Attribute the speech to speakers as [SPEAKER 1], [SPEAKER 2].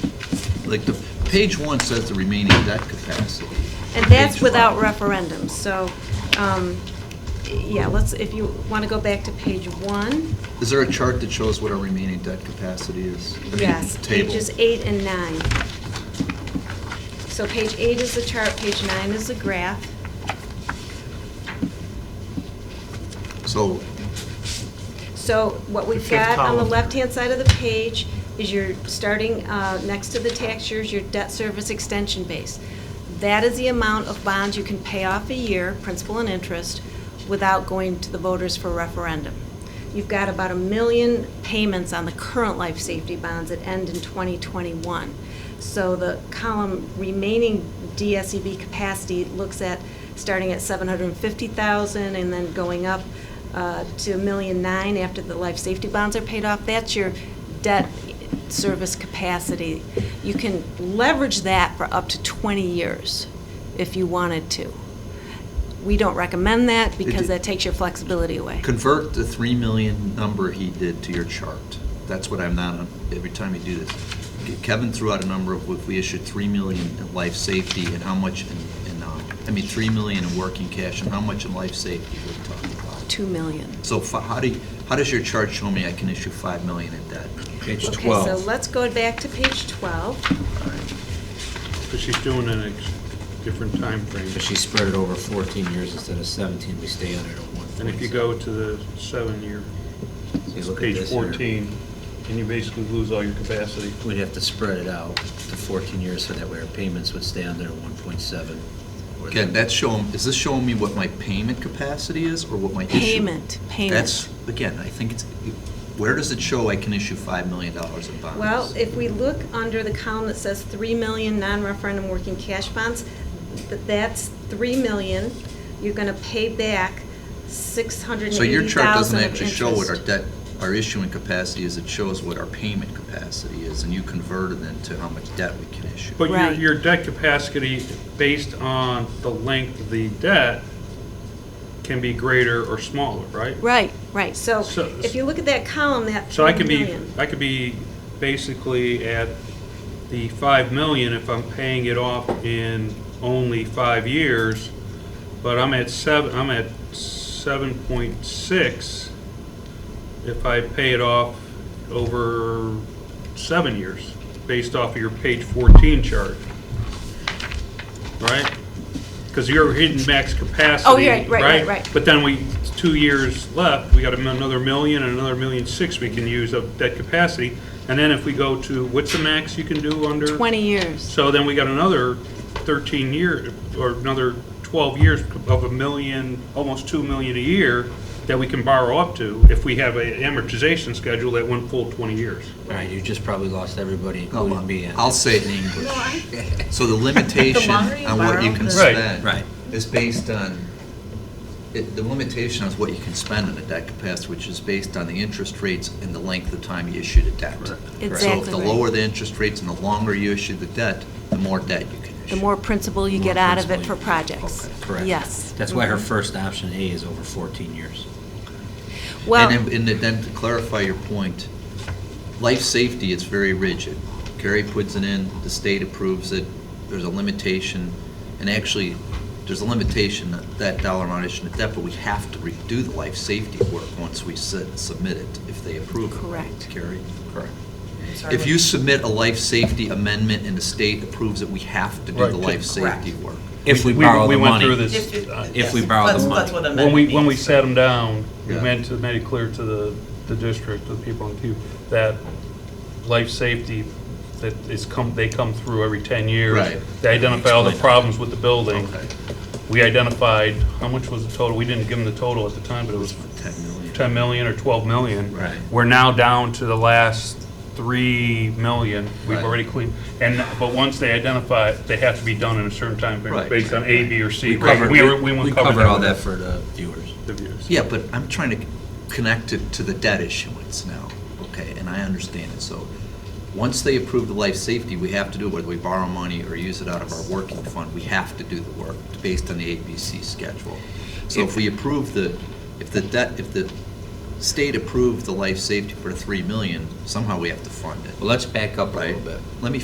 [SPEAKER 1] like, the, page one says the remaining debt capacity.
[SPEAKER 2] And that's
[SPEAKER 1] Page
[SPEAKER 2] without
[SPEAKER 1] one.
[SPEAKER 2] referendum, so, um, yeah, let's, if you want to go back to page one,
[SPEAKER 1] Is there a chart that shows what our remaining debt capacity is? I mean,
[SPEAKER 2] yes,
[SPEAKER 1] Table.
[SPEAKER 2] pages eight and nine. So page eight is the chart, page nine is the graph.
[SPEAKER 1] So,
[SPEAKER 2] So what we've
[SPEAKER 3] fifth
[SPEAKER 2] got on the
[SPEAKER 3] column.
[SPEAKER 2] left-hand side of the page is your, starting uh, next to the tax years, your debt service extension base. That is the amount of bonds you can pay off a year, principal and interest, without going to the voters for referendum. You've got about a million payments on the current life safety bonds that end in 2021. So the column remaining DSEB capacity looks at, starting at 750,000 and then going up uh, to a million nine after the life safety bonds are paid off. That's your debt service capacity. You can leverage that for up to 20 years if you wanted to. We don't recommend that because that takes your flexibility away.
[SPEAKER 1] convert the 3 million number he did to your chart. That's what I'm not, every time you do this. Kevin threw out a number of if we issued 3 million in life safety and how much in, in, um, I mean, 3 million in working cash and how much in life safety we're talking about.
[SPEAKER 2] 2 million.
[SPEAKER 1] So fi- how do, you- how does your chart show me I can issue 5 million in debt?
[SPEAKER 4] Page
[SPEAKER 2] Okay, so
[SPEAKER 4] 12.
[SPEAKER 2] let's go back to page 12.
[SPEAKER 3] But she's doing it in a different time frame.
[SPEAKER 4] But she spread it over 14 years instead of 17, we stay on it at one
[SPEAKER 3] And if you go to the seven-year,
[SPEAKER 4] So you look at
[SPEAKER 3] page
[SPEAKER 4] this here.
[SPEAKER 3] 14, and you basically lose all your capacity.
[SPEAKER 4] We'd have to spread it out to 14 years so that way our payments would stay on there at 1.7. or
[SPEAKER 1] Again,
[SPEAKER 4] the-
[SPEAKER 1] that's showing, is this showing me what my payment capacity is or what my issue?
[SPEAKER 2] Payment, payment.
[SPEAKER 1] That's, again, I think it's, where does it show I can issue $5 million in bonds?
[SPEAKER 2] Well, if we look under the column that says 3 million non-referendum working cash bonds, th- that's 3 million, you're going to pay back 680,000
[SPEAKER 1] So your chart doesn't
[SPEAKER 2] of
[SPEAKER 1] actually show what our
[SPEAKER 2] interest.
[SPEAKER 1] debt, our issuing capacity is, it shows what our payment capacity is, and you converted it to how much debt we can issue.
[SPEAKER 3] But your,
[SPEAKER 2] Right.
[SPEAKER 3] your debt capacity, based on the length of the debt, can be greater or smaller, right?
[SPEAKER 2] Right, right, so
[SPEAKER 3] So-
[SPEAKER 2] if you look at that column, that
[SPEAKER 3] So I
[SPEAKER 2] 3
[SPEAKER 3] could be,
[SPEAKER 2] million.
[SPEAKER 3] I could be basically at the 5 million if I'm paying it off in only five years, but I'm at 7, I'm at 7.6 if I pay it off over seven years, based off of your page 14 chart, right? Because you're hitting max capacity.
[SPEAKER 2] Oh, yeah, right, right, right.
[SPEAKER 3] But then we, it's two years left, we got another million and another million six we can use of that capacity. And then if we go to, what's the max you can do under?
[SPEAKER 2] 20 years.
[SPEAKER 3] So then we got another 13 year, or another 12 years of a million, almost 2 million a year that we can borrow up to if we have a amortization schedule that went full 20 years.
[SPEAKER 4] All right, you just probably lost everybody,
[SPEAKER 1] No,
[SPEAKER 4] including me. and-
[SPEAKER 1] I'll say it in English. So the limitation on what you can
[SPEAKER 3] Right.
[SPEAKER 1] spend.
[SPEAKER 4] Right.
[SPEAKER 1] Is based on, it- the limitation is what you can spend on a debt capacity, which is based on the interest rates and the length of time you issue the debt. So if
[SPEAKER 2] Exactly
[SPEAKER 1] the
[SPEAKER 2] right.
[SPEAKER 1] lower the interest rates and the longer you issue the debt, the more debt you can issue.
[SPEAKER 2] The more principal you get
[SPEAKER 4] More
[SPEAKER 2] out of it for
[SPEAKER 4] principal.
[SPEAKER 2] projects.
[SPEAKER 1] Okay,
[SPEAKER 4] Correct.
[SPEAKER 2] Yes. Mm-hmm.
[SPEAKER 4] That's why her first option A is over 14 years.
[SPEAKER 2] Mm-hmm. Well,
[SPEAKER 1] And then- and then to clarify your point, life safety is very rigid. Kerry puts it in, the state approves it, there's a limitation, and actually, there's a limitation that that dollar amount issued at debt, but we have to redo the life safety work once we sit- submit it, if they approve it. right,
[SPEAKER 2] Correct.
[SPEAKER 1] Kerry? Correct. If you submit a life safety amendment and the state approves it, we have to do the life safety work.
[SPEAKER 4] If we
[SPEAKER 3] We-
[SPEAKER 4] borrow
[SPEAKER 3] we
[SPEAKER 4] the
[SPEAKER 3] went
[SPEAKER 4] money.
[SPEAKER 3] through this. uh,
[SPEAKER 5] If you-
[SPEAKER 4] uh, If we borrow the
[SPEAKER 5] That's-
[SPEAKER 4] money.
[SPEAKER 5] That's what
[SPEAKER 3] When we,
[SPEAKER 5] amendment
[SPEAKER 3] when we
[SPEAKER 5] means.
[SPEAKER 3] sat them down, we
[SPEAKER 1] Yeah.
[SPEAKER 3] meant to, made it clear to the, the district, to the people in Cuba, that life safety, that is come, they come through every 10 years.
[SPEAKER 1] Right.
[SPEAKER 3] They identify all the
[SPEAKER 4] Explain that.
[SPEAKER 3] problems with the building.
[SPEAKER 1] Okay.
[SPEAKER 3] We identified, how much was the total? We didn't give them the total at the time, but it was
[SPEAKER 1] 10 million.
[SPEAKER 3] 10 million or 12 million.
[SPEAKER 4] Right.
[SPEAKER 3] We're now down to the last 3 million. We've
[SPEAKER 1] Right.
[SPEAKER 3] already cleaned, and, but once they identify, it, they have to be done in a certain time frame
[SPEAKER 1] Right.
[SPEAKER 3] based on A, B, or C.
[SPEAKER 4] We covered,
[SPEAKER 3] We were-
[SPEAKER 4] we
[SPEAKER 3] went
[SPEAKER 4] covered
[SPEAKER 3] covered
[SPEAKER 4] all that for the viewers.
[SPEAKER 3] with the views.
[SPEAKER 1] Yeah, but I'm trying to connect it to the debt issuance now, okay, and I understand it, so, once they approve the life safety, we have to do it, whether we borrow money or use it out of our working fund, we have to do the work, based on the ABC schedule. So if we approve the, if the debt, if the state approved the life safety for three million, somehow we have to fund it.
[SPEAKER 4] Well, let's back up a little
[SPEAKER 1] Right,
[SPEAKER 4] bit.
[SPEAKER 1] let me